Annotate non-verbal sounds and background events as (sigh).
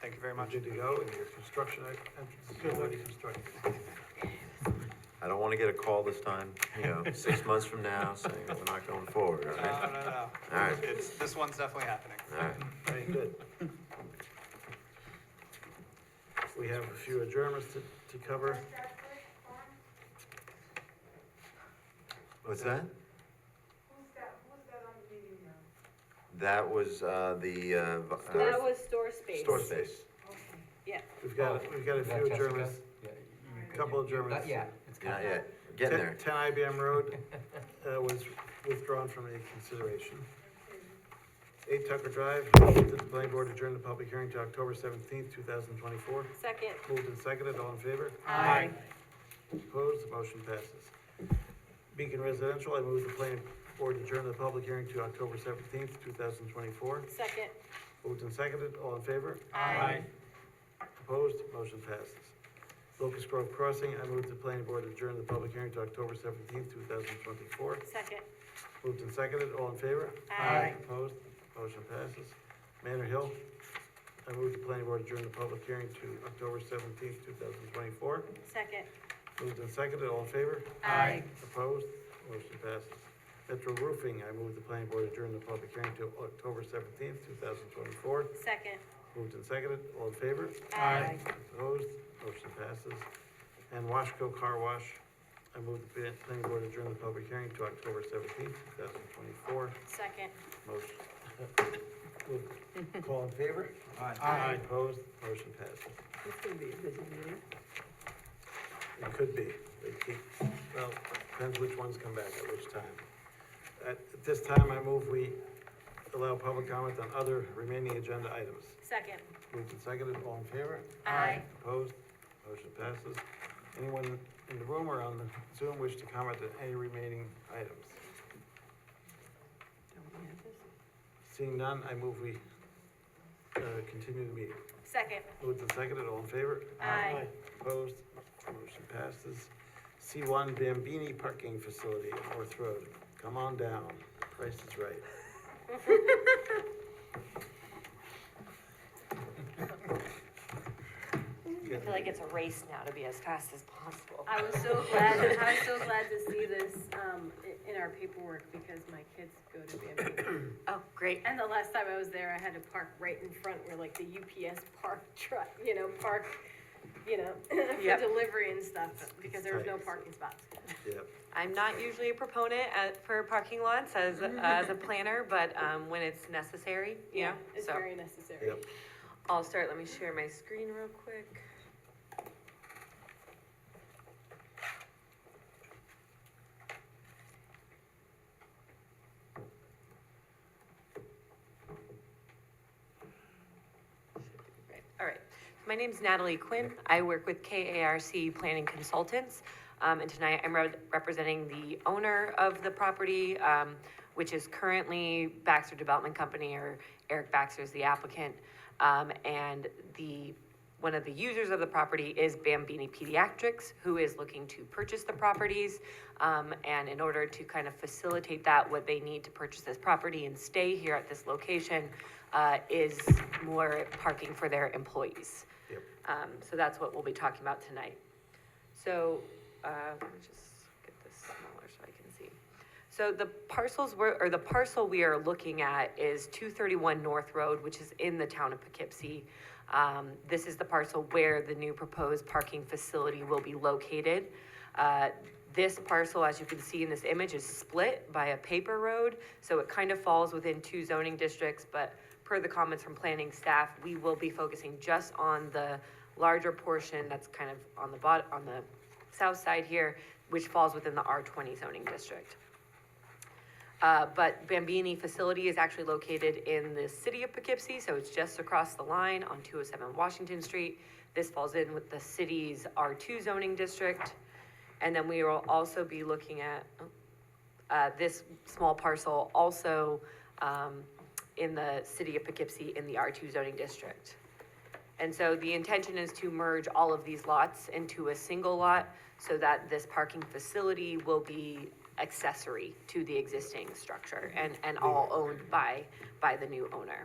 Thank you very You're much. (laughs) good to go, and your construction act- entrance is already constructed. I don't wanna get a call this time, you know, six months from now saying we're not going forward, all No, right? no, no. All right. It's, this one's definitely happening. All right, Very good. We have a few adjournments to, to cover. what's that? Who's got, who's got on the meeting now? That was, uh, the, uh, v- That uh, was store space. store space. Okay. Yeah. We've got, we've got a Is that few Jessica? adjournments. Yeah, you- you- Couple of you- not Germans. yet. It's Not coming. yet, getting there. 10 IBM Road uh, was withdrawn from any consideration. 8 Tucker Drive, move that the planning board adjourn the public hearing to October 17th, 2024. Second. Moved and seconded, all in favor? Aye. Opposed, the motion passes. Beacon Residential, I move the planning board adjourn the public hearing to October 17th, 2024. Second. Moved and seconded, all in favor? Aye. Opposed, motion passes. Locust Grove Crossing, I move the planning board adjourn the public hearing to October 17th, 2024. Second. Moved and seconded, all in favor? Aye. Opposed, motion passes. Manor Hill, I move the planning board adjourn the public hearing to October seventeenth, two thousand twenty-four. Second. Moved and seconded, all in favor? Aye. Opposed, motion passes. Metro Roofing, I move the planning board adjourn the public hearing to October seventeenth, two thousand twenty-four. Second. Moved and seconded, all in favor? Aye. Opposed, motion passes. And Washco Car Wash, I move the plan- planning board adjourn the public hearing to October seventeenth, two thousand twenty-four. Second. Motion. (laughs) Would- All in favor? Aye. Opposed, motion passes. This is gonna be a busy meeting. It could be, they keep, well, depends which ones come back at which time. At this time, I move we allow public comment on other remaining agenda items. Second. Moved and seconded, all in favor? Aye. Opposed, motion passes. Anyone in the room or on the Zoom wish to comment on any remaining items? Don't we have this? Seeing none, I move we, uh, continue the meeting. Second. Moved and seconded, all in favor? Aye. Opposed, motion passes. C one Bambini Parking Facility at North Road, come on down, price is right. I feel like it's a race now to be as fast as possible. I was so glad, I was so glad to see this, um, i- in our paperwork because my kids go to Bamboo. Oh, great. And the last time I was there, I had to park right in front where like the UPS park (laughs) truck, you know, park, you know, (laughs) for Yep. delivery and stuff because there was no tight. parking spots. Yep, I'm not usually a proponent at, for parking lots as, as a planner, but, um, when it's necessary, you know, It's so. very necessary. yep. I'll start, let me share my screen real quick. Right, All right, my name's Natalie Quinn, I work with KARC Planning Consultants. Um, and tonight I'm re- representing the owner of the property, um, which is currently Baxter Development Company, or Eric Baxter is the applicant. Um, and the, one of the users of the property is Bambini Pediatrics, who is looking to purchase the properties. Um, and in order to kind of facilitate that, what they need to purchase this property and stay here at this location, uh, is more parking for their employees. Yep. Um, so that's what we'll be talking about tonight. So, uh, let me just get this smaller so I can see. So the parcels we're, or the parcel we are looking at is two thirty-one North Road, which is in the town of Poughkeepsie. Um, this is the parcel where the new proposed parking facility will be located. Uh, this parcel, as you can see in this image, is split by a paper road, so it kind of falls within two zoning districts, but per the comments from planning staff, we will be focusing just on the larger portion that's kind of on the bot, on the south side here, which falls within the R twenty zoning district. Uh, but Bambini facility is actually located in the city of Poughkeepsie, so it's just across the line on two oh seven Washington Street. This falls in with the city's R two zoning district. And then we will also be looking at, oh, uh, this small parcel also, um, in the city of Poughkeepsie in the R two zoning district. And so the intention is to merge all of these lots into a single lot so that this parking facility will be accessory to the existing structure and, and all owned by, by the new owner.